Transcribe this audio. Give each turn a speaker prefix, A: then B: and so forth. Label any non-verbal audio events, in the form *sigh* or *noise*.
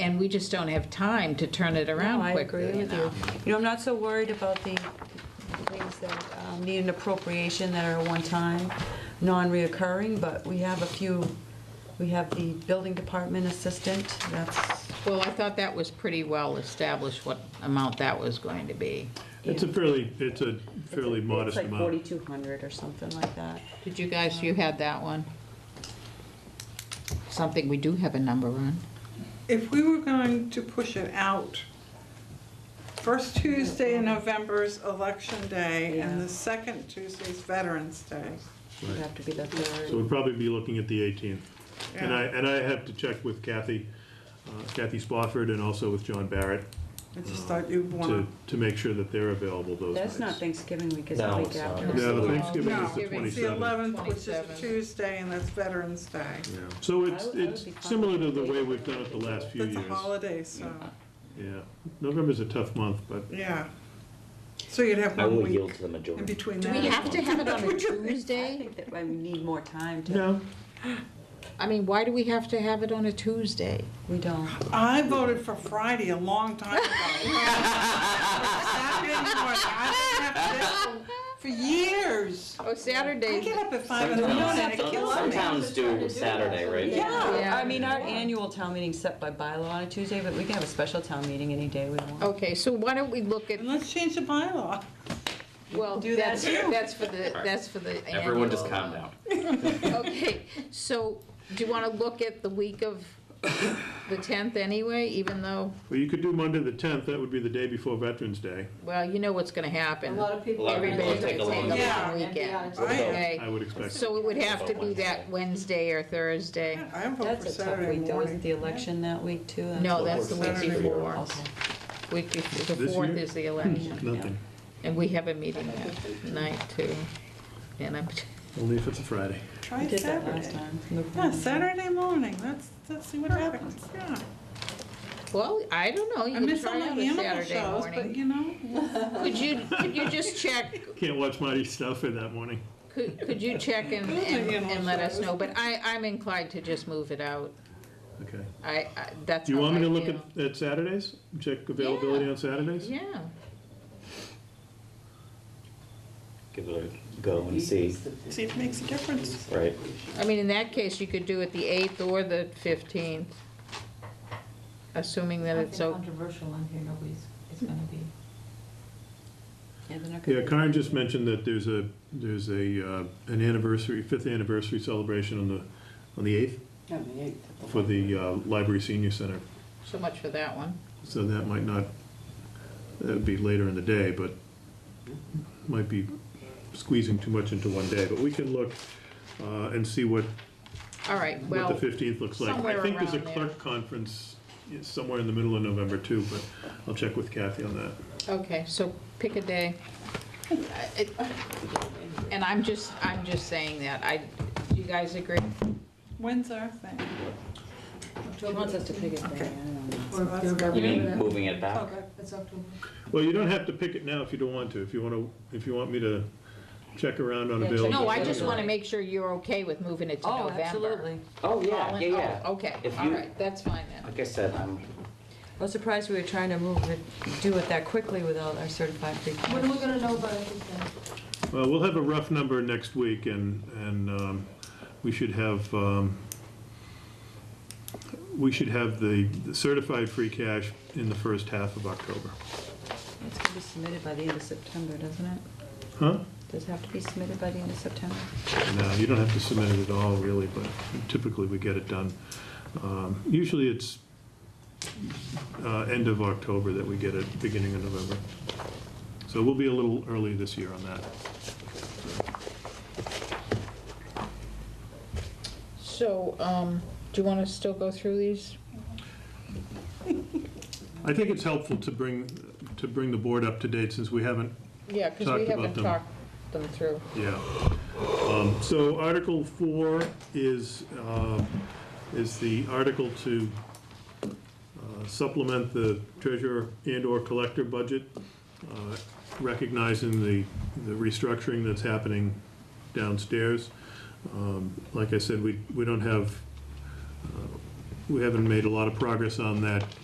A: we just don't have time to turn it
B: No,
A: around
B: I
A: quickly
B: agree with you.
A: enough.
B: You know, I'm not so worried about the things that um, need an appropriation that are one-time, non-reoccurring, but we have a few, we have the building department assistant, that's,
A: Well, I thought that was pretty well established, what amount that was going to be.
C: It's a fairly, it's a fairly modest
B: It's like
C: amount.
B: 4,200 or something like that.
A: Did you guys, you had that one? Something we do have a number on.
D: If we were going to push it out, first Tuesday in November's election day, and
B: Yeah.
D: the second Tuesday's Veterans Day.
B: It'd have to be the
C: So
B: third.
C: we'd probably be looking at the 18th. And
D: Yeah.
C: I, and I have to check with Kathy, uh, Kathy Spofford and also with John Barrett
D: I just thought you'd
C: to,
D: want
C: to make sure that they're available those nights.
B: That's not Thanksgiving week, it's the
E: No,
B: week
E: it's not.
B: after.
C: Yeah, the
D: to.
C: Thanksgiving
D: No,
C: is the
D: It's the
C: 27th.
D: 11th, which is a
A: 27th.
D: Tuesday, and that's Veterans Day.
C: Yeah. So it's,
B: I would- I would
C: it's
B: be fine
C: similar to
B: with
C: the
B: the
C: way
B: date.
C: we've done it the last few
D: That's
C: years.
D: a holiday, so,
C: Yeah, November's a tough month, but
D: yeah. So you'd have
E: I
D: one
E: will yield
D: week
E: to the
D: in
E: majority.
D: between
A: Do
D: that.
A: we have to have it on a
B: I
A: Tuesday?
B: think that I need more time to,
C: no,
A: I mean, why do we have to have it on a Tuesday?
B: we don't.
D: I voted for Friday a long
A: *laughs*
D: time ago. Saturday morning, I've been up For years.
A: Oh,
D: I
A: Saturday.
D: get up at five in the morning and
E: Sometimes
D: it kills
E: some
D: me.
E: towns do Saturday, right?
A: Yeah.
B: Yeah, I mean, our annual town meeting's set by bylaw on a Tuesday, but we can have a special town meeting any day we want.
A: Okay, so why don't we look at,
D: And let's change the bylaw.
A: well,
B: do that
A: that's,
B: too.
A: that's for the, that's for the annual.
E: Everyone just calm down.
A: Okay, so do you want to look at the week of the 10th anyway, even though,
C: well, you could do Monday the tenth, that would be the day before Veterans Day,
A: well, you know what's going to happen.
F: of people.
E: A lot of people
A: Everybody's
E: take
A: going to take
E: a long
A: a
D: weekend.
A: long
D: Yeah.
A: weekend.
D: I am.
A: Okay,
C: I would expect.
A: so it would have to be that Wednesday or Thursday.
D: I am voting Oh, for
B: That's a tough
D: Saturday
B: week, though,
D: morning.
B: is the election that week, too? That's-
A: No, that's the week
D: Saturday.
A: before.
B: Okay.
A: Week before, the
C: This
A: fourth
C: year?
A: is the election.
C: Nothing,
A: And we have a meeting that night too. And I'm,
C: only if it's a Friday.
D: Try
B: We did that last
D: Saturday.
B: time.
D: Yeah, Saturday morning, let's, let's see what happens, yeah.
A: well, I don't know,
D: I
A: you can
D: miss all
A: try
D: my
A: on a
D: animal
A: Saturday
D: shows, but
A: morning.
D: you know,
A: Could you, could you just check,
C: Can't watch Marty Stauffer that morning.
A: could, could you check and,
D: I love my
A: and
D: animal
A: and let us
D: shows.
A: know? But I, I'm inclined to just move it out.
C: Okay.
A: I, I, that's
C: Do you
A: how
C: want me
A: I
C: to look
A: feel.
C: at, at Saturdays? Check availability on Saturdays?
A: Yeah,
E: Give it a go and see,
D: see if it makes a difference.
E: right?
A: I mean, in that case, you could do it the eighth or the fifteenth, assuming that it's, o-
F: Controversial on here, nobody's, it's gonna be.
B: Yeah, they're not
C: Yeah,
B: gonna-
C: Karen just mentioned that there's a, there's a, uh, an anniversary, fifth anniversary celebration on the, on the eighth for the uh, Library Senior Center.
A: so much for that one.
C: So that might not, that would be later in the day, but might be squeezing too much into one day. But we can look uh, and see what,
A: All right,
C: what
A: well,
C: the 15th looks like.
A: somewhere
C: I think there's a
A: around there.
C: clerk conference uh, somewhere in the middle of November too, but I'll check with Kathy on that.
A: okay, so pick a day. I- it- And I'm just, I'm just saying that, I, do you guys agree?
D: When's our thing?
B: She wants us to pick it,
D: Okay.
B: I
D: Well, that's good.
E: You mean moving it back?
D: Okay.
F: It's October.
C: Well, you don't have to pick it now if you don't want to. If you want to, if you want me to check around on
B: Yeah, check
C: availability.
A: No, I just want to make sure you're okay with moving it to
B: Oh,
A: November.
B: absolutely.
E: Oh, yeah,
A: Colin?
E: yeah,
A: Oh,
E: yeah.
A: Okay,
E: If
A: all
E: you-
A: right, that's fine then.
E: Like I said, I'm,
B: I was surprised we were trying to move it, do it that quickly without our certified free
F: When are
B: cash.
F: we gonna know about it then?
C: Well, we'll have a rough number next week, and, and um, we should have, um, we should have the the certified free cash in the first half of October.
B: It's gonna be submitted by the end of September, doesn't it?
C: Huh?
B: Does it have to be submitted by the end of September?
C: No, you don't have to submit it at all, really, but typically we get it done. Um, Usually it's uh, end of October that we get it, beginning of November. So we'll be a little early this year on that.
A: So, um, do you want to still go through these?
C: I think it's helpful to bring, to bring the board up to date, since we haven't
A: Yeah, because we
C: Talked about
A: haven't
C: them.
A: talked them through.
C: Yeah. Um, So Article 4 is, uh, is the article to uh, supplement the treasurer and/or collector budget, uh, recognizing the the restructuring that's happening downstairs. Um, Like I said, we, we don't have, uh, we haven't made a lot of progress on that